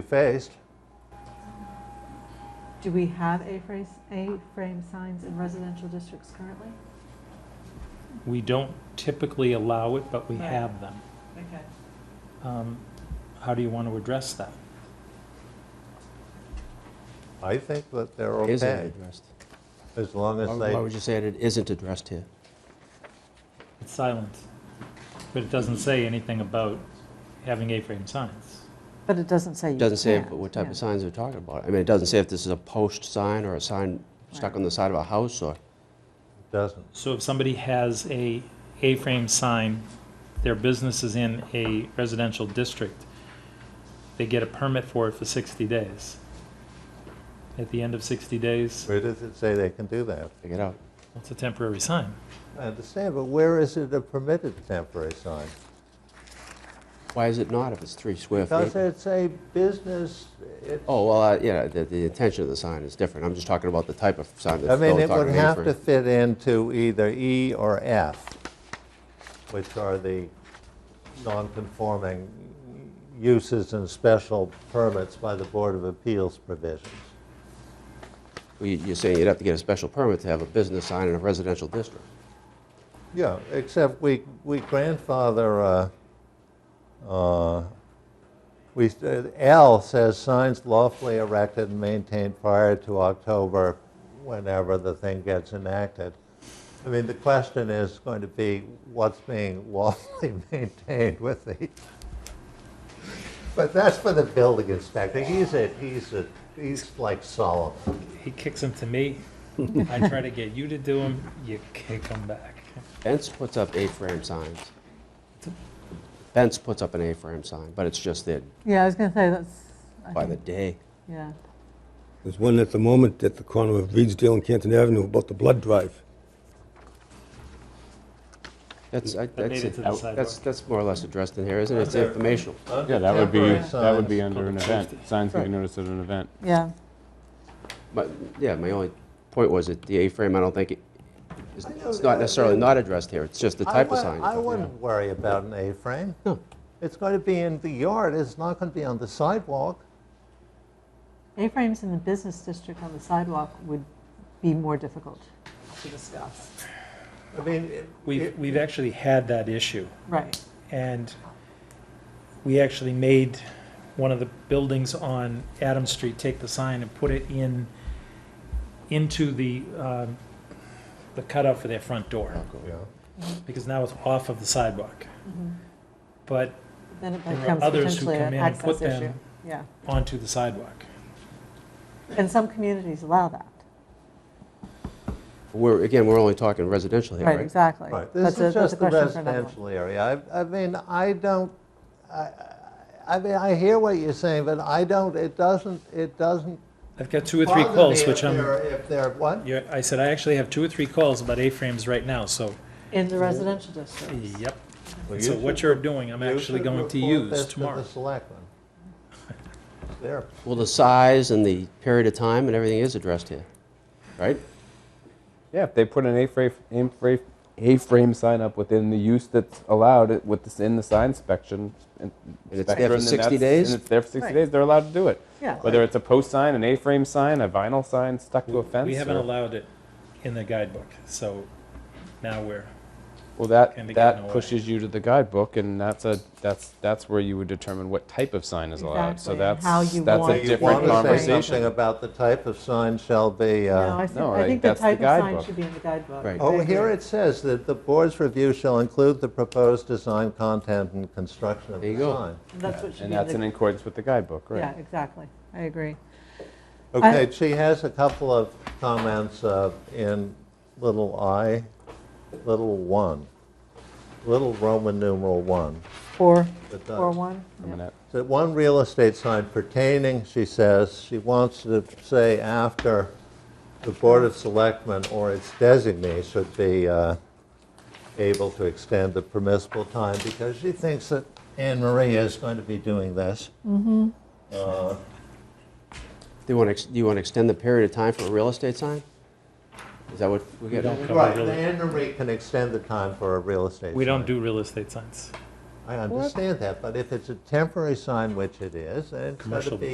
two-faced. Do we have A-frame, A-frame signs in residential districts currently? We don't typically allow it, but we Right. have them. Okay. Um, How do you want to address that? I think that they're Isn't okay, addressed. as long Why as why they would you say it isn't addressed here? It's silent, but it doesn't say anything about having A-frame signs. But it doesn't say you It can't. doesn't say what type yeah. of signs they're talking about. I mean, it doesn't say if this is a post sign or a sign stuck Right. on the side of a house or, doesn't. So if somebody has a A-frame sign, their business is in a residential district, they get a permit for it for 60 days. At the end of 60 days, Where does it say they can do that? figure it out. it's a temporary sign. I understand, but where is it a permitted temporary sign? Why is it not if it's three square Because feet? it's a business, it, Oh, well, I- yeah, the, the intention of the sign is different. I'm just talking about the type of sign I that's mean, going it talking would about have to apron. fit into either E or F, which are the non-conforming uses and special permits by the Board of Appeals provisions. Well, you- You're saying you'd have to get a special permit to have a business sign in a residential district. Yeah, except we, we grandfather, uh, uh, we, L says signs lawfully erected and maintained prior to October, whenever the thing gets enacted. I mean, the question is going to be what's being lawfully maintained with the, but that's for the building inspector. He's a, he's a, he's like Solomon. He kicks them to me, I try to get you to do them, you kick them back. Bent's puts up A-frame signs. Bent's puts up an A-frame sign, but it's just there Yeah, I was going to say that's, I by the think- day. yeah. There's one at the moment at the corner of Reedsdale and Canton Avenue about the blood drive. That's, I- That made that's, it to the out- that's, sidewalk. that's more or less addressed in here, isn't it? It's informational. Yeah, that would be, Temporary that would be signs. under an event. Signs can be noticed at an event. Yeah, But, yeah, my only point was that the A-frame, I don't think, it- it's I know it's that- not necessarily not addressed here, it's just the I type of wou- sign. I wouldn't worry about an A-frame. No. It's going to be in the yard, it's not going to be on the sidewalk. A-frames in the business district on the sidewalk would be more difficult to discuss. I mean, it- We've, it- we've actually had that issue. Right, And we actually made one of the buildings on Adam Street take the sign and put it in, into the, um, the cutout for their front door, Oh, yeah. because now it's off of the sidewalk. But Mm-hmm. then it There are becomes others who potentially come an in and put access issue. them- Yeah, onto the sidewalk. and some communities allow that. We're, again, we're only talking residential here, Right, right? exactly. Right, That's this a- is that's a just the question for another one. residential area. I, I mean, I don't, I, I mean, I hear what you're saying, but I don't, it doesn't, it doesn't I've got two or three bother me calls, if which I'm, they're, if they're, what? yeah, I said, I actually have two or three calls about A-frames right now, so, In the residential district. yep. Well, you So should- what you're doing, I'm you actually should going to report this use tomorrow. To the selectmen. There, Well, the size and the period of time and everything is addressed here, right? Yeah, if they put an A-frame, A-frame, A-frame sign up within the use that's allowed it- with this, in the sign section. And And it's there for spectrum, then 60 that's- days? And it's there for 60 Right. days, they're allowed to do it. Yeah. Whether it's a post sign, an A-frame sign, a vinyl sign stuck to a fence. We haven't or- allowed it in the guidebook, so now we're, Well, Can be gotten that, that away. pushes you to the guidebook and that's a, that's, that's where you would determine what type of sign is allowed. Exactly, So and that's, how you that's want a it. you different want to say conversation. something about the type of sign shall be, uh. No, I think, no, I like, think the that's the type of sign guidebook. should be in the guidebook. Right. Oh, I here agree. it says that the board's review shall include the proposed design content and construction of There the you go. sign. That's what should And be in that's in the, accordance with the guidebook, right? yeah, exactly. I agree. Okay, she has a couple of comments uh, in little i, little 1, little Roman numeral 1. Four, It does. four, one? I'm yeah. gonna- So one real estate sign pertaining, she says, she wants to say after the Board of Selectmen or its designee should be uh, able to extend the permissible time because she thinks that Anne Marie is going to be doing this. They want, to do you want to extend the period of time for a real estate sign? Is that what we're getting don't at? cover Right, real- Anne Marie can extend the time for a real estate. we don't sign. do real estate signs. I understand that, but if it's a temporary sign, which it is, then it's got to Commercial be